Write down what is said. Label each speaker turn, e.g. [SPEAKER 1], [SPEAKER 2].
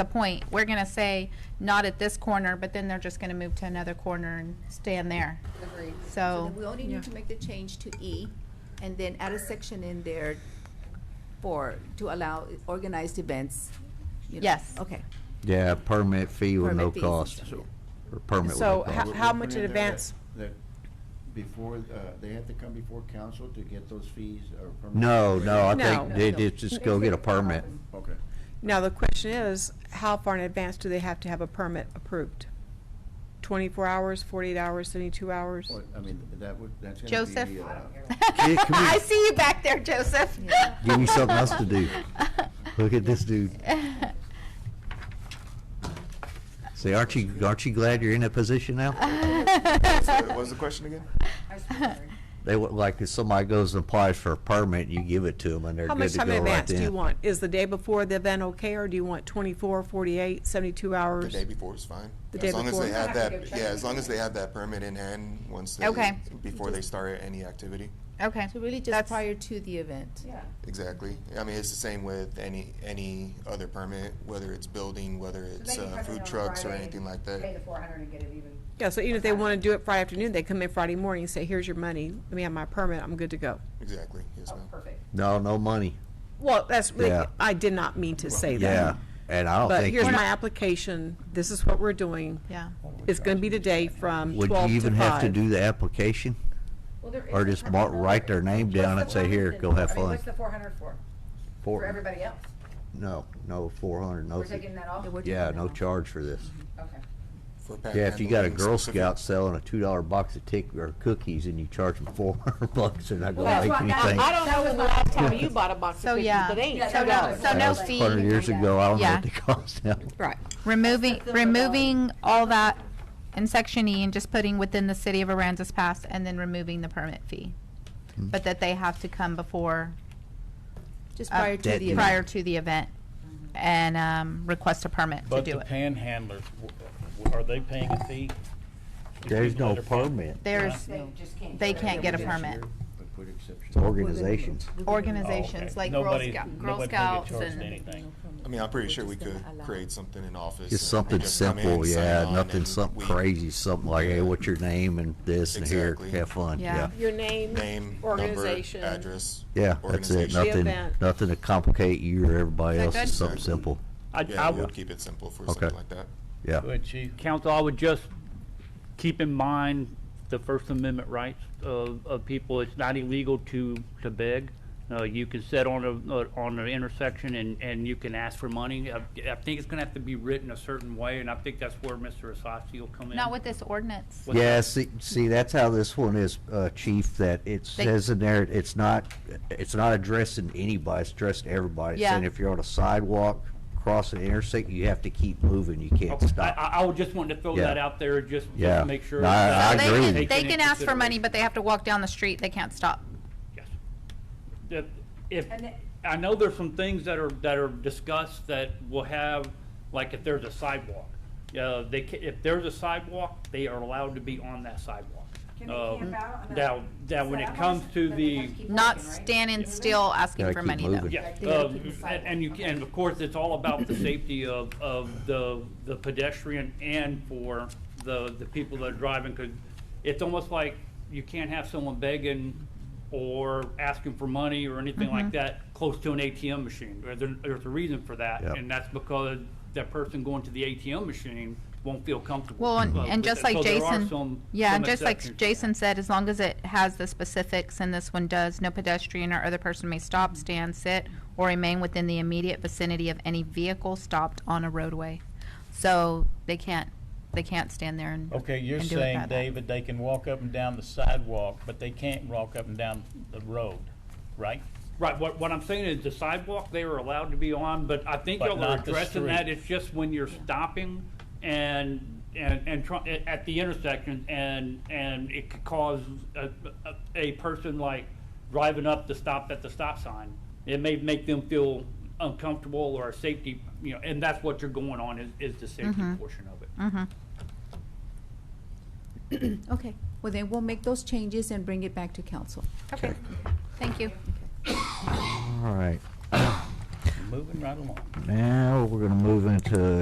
[SPEAKER 1] the point. We're gonna say, not at this corner, but then they're just gonna move to another corner and stand there.
[SPEAKER 2] Agreed.
[SPEAKER 1] So-
[SPEAKER 2] then we only need to make the change to E, and then add a section in there for, to allow organized events. you know.
[SPEAKER 1] Yes.
[SPEAKER 2] Okay.
[SPEAKER 3] Yeah, permit fee with no
[SPEAKER 2] Permit fees and
[SPEAKER 3] cost.
[SPEAKER 2] stuff, yeah.
[SPEAKER 3] Or permit with
[SPEAKER 4] So
[SPEAKER 3] no
[SPEAKER 4] ho-
[SPEAKER 3] cost.
[SPEAKER 4] how
[SPEAKER 5] We'll
[SPEAKER 4] much
[SPEAKER 5] put
[SPEAKER 4] in
[SPEAKER 5] there that-
[SPEAKER 4] advance?
[SPEAKER 5] that Before, uh, they have to come before council to get those fees or permits?
[SPEAKER 3] No, no, I think
[SPEAKER 4] No.
[SPEAKER 3] they they just go get a permit.
[SPEAKER 5] Okay.
[SPEAKER 4] Now, the question is, how far in advance do they have to have a permit approved? 24 hours, 48 hours, 72 hours?
[SPEAKER 5] Well, I mean, that would, that's gonna be.
[SPEAKER 1] Joseph?
[SPEAKER 5] uh,
[SPEAKER 3] come
[SPEAKER 1] I see you back there, Joseph.
[SPEAKER 2] Yeah.
[SPEAKER 3] Give me something else to do. Look at this dude. Say, aren't you, aren't you glad you're in that position now?
[SPEAKER 6] Sorry, What was the question again?
[SPEAKER 3] They would, like, if somebody goes and applies for a permit, you give it to them and they're
[SPEAKER 4] How
[SPEAKER 3] good
[SPEAKER 4] much
[SPEAKER 3] to go right
[SPEAKER 4] time
[SPEAKER 3] then.
[SPEAKER 4] in advance do you want? Is the day before the event okay, or do you want 24, 48, 72
[SPEAKER 6] The
[SPEAKER 4] hours?
[SPEAKER 6] day before is fine.
[SPEAKER 4] The day
[SPEAKER 6] As long as
[SPEAKER 4] before.
[SPEAKER 6] they have that, yeah, as long as they have that permit in hand once they,
[SPEAKER 1] Okay.
[SPEAKER 6] before they start any activity.
[SPEAKER 1] Okay.
[SPEAKER 2] So really just
[SPEAKER 1] That's-
[SPEAKER 2] prior to the event.
[SPEAKER 6] Exactly. I mean, it's the same with any, any other permit, whether it's building, whether it's
[SPEAKER 7] they can
[SPEAKER 6] uh,
[SPEAKER 7] come in
[SPEAKER 6] food
[SPEAKER 7] on
[SPEAKER 6] trucks or
[SPEAKER 7] Friday,
[SPEAKER 6] anything like
[SPEAKER 7] Pay
[SPEAKER 6] that.
[SPEAKER 7] the four hundred and get it even.
[SPEAKER 4] Yeah, so even if they want to do it Friday afternoon, they come in Friday morning and say, here's your money, let me have my permit, I'm good to go.
[SPEAKER 6] Exactly, yes,
[SPEAKER 7] Oh,
[SPEAKER 6] ma'am.
[SPEAKER 7] perfect.
[SPEAKER 3] No, no money.
[SPEAKER 4] Well, that's, really-
[SPEAKER 3] Yeah.
[SPEAKER 4] I did not mean to say
[SPEAKER 3] Yeah,
[SPEAKER 4] that.
[SPEAKER 3] and I don't
[SPEAKER 4] But
[SPEAKER 3] think,
[SPEAKER 4] here's
[SPEAKER 3] you-
[SPEAKER 4] my application, this is what we're doing.
[SPEAKER 1] Yeah.
[SPEAKER 4] It's going to be today from 12
[SPEAKER 3] would
[SPEAKER 4] to 5.
[SPEAKER 3] you even have to do the application?
[SPEAKER 7] Well, there
[SPEAKER 3] Or
[SPEAKER 7] is a
[SPEAKER 3] just
[SPEAKER 7] permit
[SPEAKER 3] mark-
[SPEAKER 7] number.
[SPEAKER 3] write their name
[SPEAKER 7] What's
[SPEAKER 3] down
[SPEAKER 7] the
[SPEAKER 3] and say, "Here,
[SPEAKER 7] 400
[SPEAKER 3] go
[SPEAKER 7] then?
[SPEAKER 3] have
[SPEAKER 7] I mean,
[SPEAKER 3] fun."
[SPEAKER 7] What's the four hundred for? For everybody else?
[SPEAKER 3] No, no, four hundred, no.
[SPEAKER 7] We're
[SPEAKER 3] fee.
[SPEAKER 7] taking that off?
[SPEAKER 2] Yeah, we're taking
[SPEAKER 3] Yeah,
[SPEAKER 2] that
[SPEAKER 3] no
[SPEAKER 2] off.
[SPEAKER 3] charge for this.
[SPEAKER 7] Okay. Oh.
[SPEAKER 6] For pack
[SPEAKER 3] Yeah, if you got a
[SPEAKER 6] handling
[SPEAKER 3] Girl
[SPEAKER 6] specific-
[SPEAKER 3] Scout selling a two dollar box of tick, or cookies and you charge them four hundred bucks, they're not
[SPEAKER 7] Well,
[SPEAKER 3] gonna
[SPEAKER 7] that's
[SPEAKER 3] make
[SPEAKER 7] why I-
[SPEAKER 3] anything.
[SPEAKER 7] I don't know when the last time
[SPEAKER 4] you bought a box
[SPEAKER 1] So, yeah. So
[SPEAKER 2] Oh,
[SPEAKER 1] no, so
[SPEAKER 3] That
[SPEAKER 1] no
[SPEAKER 3] was
[SPEAKER 1] fee.
[SPEAKER 3] Hundred years ago, I don't know
[SPEAKER 1] Yeah.
[SPEAKER 3] what they cost now.
[SPEAKER 4] Right.
[SPEAKER 1] Removing, removing all that in section E and just putting within the city of Aransas Pass and then removing the permit fee. But that they have to come before,
[SPEAKER 2] Just
[SPEAKER 1] uh,
[SPEAKER 2] prior to
[SPEAKER 3] That
[SPEAKER 2] the event.
[SPEAKER 1] prior to the event and, um, request a permit to
[SPEAKER 8] But
[SPEAKER 1] do
[SPEAKER 8] the
[SPEAKER 1] it.
[SPEAKER 8] panhandlers, w- w- are they paying a fee? The
[SPEAKER 3] There's
[SPEAKER 8] people
[SPEAKER 3] no
[SPEAKER 8] that are paying-
[SPEAKER 3] permit,
[SPEAKER 1] There's,
[SPEAKER 7] They just can't.
[SPEAKER 1] they
[SPEAKER 7] do it.
[SPEAKER 1] can't get a
[SPEAKER 5] this
[SPEAKER 1] permit.
[SPEAKER 5] year, but Put exceptions.
[SPEAKER 3] it's organizations.
[SPEAKER 8] Oh, okay.
[SPEAKER 1] Organizations like Girl
[SPEAKER 8] Nobody-
[SPEAKER 1] Scout, Girl
[SPEAKER 8] nobody can get
[SPEAKER 1] Scouts
[SPEAKER 8] charged
[SPEAKER 1] and,
[SPEAKER 8] anything.
[SPEAKER 6] I mean, I'm pretty sure we could create something in
[SPEAKER 3] Just
[SPEAKER 6] office. and they
[SPEAKER 3] something
[SPEAKER 6] just come in,
[SPEAKER 3] simple,
[SPEAKER 6] sign
[SPEAKER 3] yeah,
[SPEAKER 6] on,
[SPEAKER 3] nothing,
[SPEAKER 6] and
[SPEAKER 3] something
[SPEAKER 6] we
[SPEAKER 3] crazy, something like, hey, what's your name and this and here,
[SPEAKER 6] Exactly.
[SPEAKER 3] have fun, yeah.
[SPEAKER 1] Yeah.
[SPEAKER 4] Your name,
[SPEAKER 6] Name, number,
[SPEAKER 4] organization.
[SPEAKER 6] address.
[SPEAKER 3] Yeah, that's it,
[SPEAKER 6] organization.
[SPEAKER 3] nothing,
[SPEAKER 4] event.
[SPEAKER 3] nothing to complicate you or everybody
[SPEAKER 1] Is
[SPEAKER 3] else,
[SPEAKER 1] that
[SPEAKER 3] it's
[SPEAKER 1] good?
[SPEAKER 3] something simple,
[SPEAKER 8] I, I
[SPEAKER 6] Yeah, we'll
[SPEAKER 8] would,
[SPEAKER 6] keep it simple for
[SPEAKER 3] Okay.
[SPEAKER 6] something like that.
[SPEAKER 3] yeah.
[SPEAKER 8] Go ahead, Chief. Council, I would just keep in mind the First Amendment rights of, of people. It's not illegal to, to beg. Uh, you can sit on a, uh, on an intersection and, and you can ask for money. I, I think it's gonna have to be written a certain way, and I think that's where Mr. Asasi will come in.
[SPEAKER 1] not with this ordinance.
[SPEAKER 8] What's
[SPEAKER 3] Yeah,
[SPEAKER 8] that?
[SPEAKER 3] see, see, that's how this one is, uh, Chief, that it says in there, it's not, it's not addressing anybody, it's addressing everybody. It's
[SPEAKER 1] Yeah.
[SPEAKER 3] Saying if you're on a sidewalk, cross an intersection, you have to keep moving, you can't
[SPEAKER 8] Okay. I,
[SPEAKER 3] stop.
[SPEAKER 8] I, I would just want to throw
[SPEAKER 3] Yeah.
[SPEAKER 8] that out there, just,
[SPEAKER 3] Yeah.
[SPEAKER 8] just make sure.
[SPEAKER 3] No, I-
[SPEAKER 8] that-
[SPEAKER 3] I
[SPEAKER 1] They
[SPEAKER 3] agree.
[SPEAKER 1] can-
[SPEAKER 3] Taken
[SPEAKER 1] They
[SPEAKER 8] in
[SPEAKER 1] can ask for money,
[SPEAKER 8] consideration.
[SPEAKER 1] but they have to walk down the street. They can't stop.
[SPEAKER 8] Yes. If, if,
[SPEAKER 7] And it-
[SPEAKER 8] I know there's some things that are, that are discussed that will have, like if there's a sidewalk. Uh, they ca if there's a sidewalk, they are allowed to be on that sidewalk.
[SPEAKER 7] Can they
[SPEAKER 8] Uh,
[SPEAKER 7] camp out on
[SPEAKER 8] Now,
[SPEAKER 7] that-
[SPEAKER 8] now when
[SPEAKER 7] So
[SPEAKER 8] it
[SPEAKER 7] that
[SPEAKER 8] comes
[SPEAKER 7] one's-
[SPEAKER 8] to
[SPEAKER 7] but they
[SPEAKER 8] the,
[SPEAKER 7] must keep
[SPEAKER 1] Not
[SPEAKER 7] working, right?
[SPEAKER 1] standing still asking
[SPEAKER 3] Gotta
[SPEAKER 1] for
[SPEAKER 3] keep
[SPEAKER 1] money though.
[SPEAKER 3] moving.
[SPEAKER 8] yeah,
[SPEAKER 7] They gotta
[SPEAKER 8] uh,
[SPEAKER 7] keep the sidewalk.
[SPEAKER 8] and, and you, and of course, it's all about the safety of, of the, the pedestrian and for the, the people that are driving, because it's almost like you can't have someone begging or asking for money or anything
[SPEAKER 1] Mm-hmm.
[SPEAKER 8] like that close to an ATM machine. There- there- There's a reason for that,
[SPEAKER 3] Yep.
[SPEAKER 8] and that's because that person going to the ATM machine won't feel comfortable.
[SPEAKER 1] Well, and,
[SPEAKER 8] Uh,
[SPEAKER 1] and
[SPEAKER 8] with
[SPEAKER 1] just
[SPEAKER 8] that.
[SPEAKER 1] like
[SPEAKER 8] So there are
[SPEAKER 1] Jason,
[SPEAKER 8] some-
[SPEAKER 1] yeah,
[SPEAKER 8] some
[SPEAKER 1] and just
[SPEAKER 8] exceptions
[SPEAKER 1] like
[SPEAKER 8] to that.
[SPEAKER 1] Jason said, as long as it has the specifics and this one does, no pedestrian or other person may
[SPEAKER 8] Mm-hmm.
[SPEAKER 1] stop, stand, sit, or remain within the immediate vicinity of any vehicle stopped on a roadway. So they can't, they can't stand there and.
[SPEAKER 9] Okay, you're
[SPEAKER 1] and do it
[SPEAKER 9] saying,
[SPEAKER 1] that-
[SPEAKER 9] David, they can walk up and down the sidewalk, but they can't walk up and down the road, right?
[SPEAKER 8] Right, what, what I'm saying is the sidewalk they are allowed to be on, but I think
[SPEAKER 9] But
[SPEAKER 8] y'all are
[SPEAKER 9] not the
[SPEAKER 8] addressing that,
[SPEAKER 9] street.
[SPEAKER 8] it's just when you're stopping and, and, and try, at- at the intersection and, and it could cause a, a, a person like driving up to stop at the stop sign. It may make them feel uncomfortable or a safety, you know, and that's what you're going on is, is the safety portion of it.
[SPEAKER 2] Okay, well then we'll make those changes and bring it back to council.
[SPEAKER 1] Okay, thank you.
[SPEAKER 3] All right.
[SPEAKER 9] moving right along.
[SPEAKER 3] Now, we're gonna move into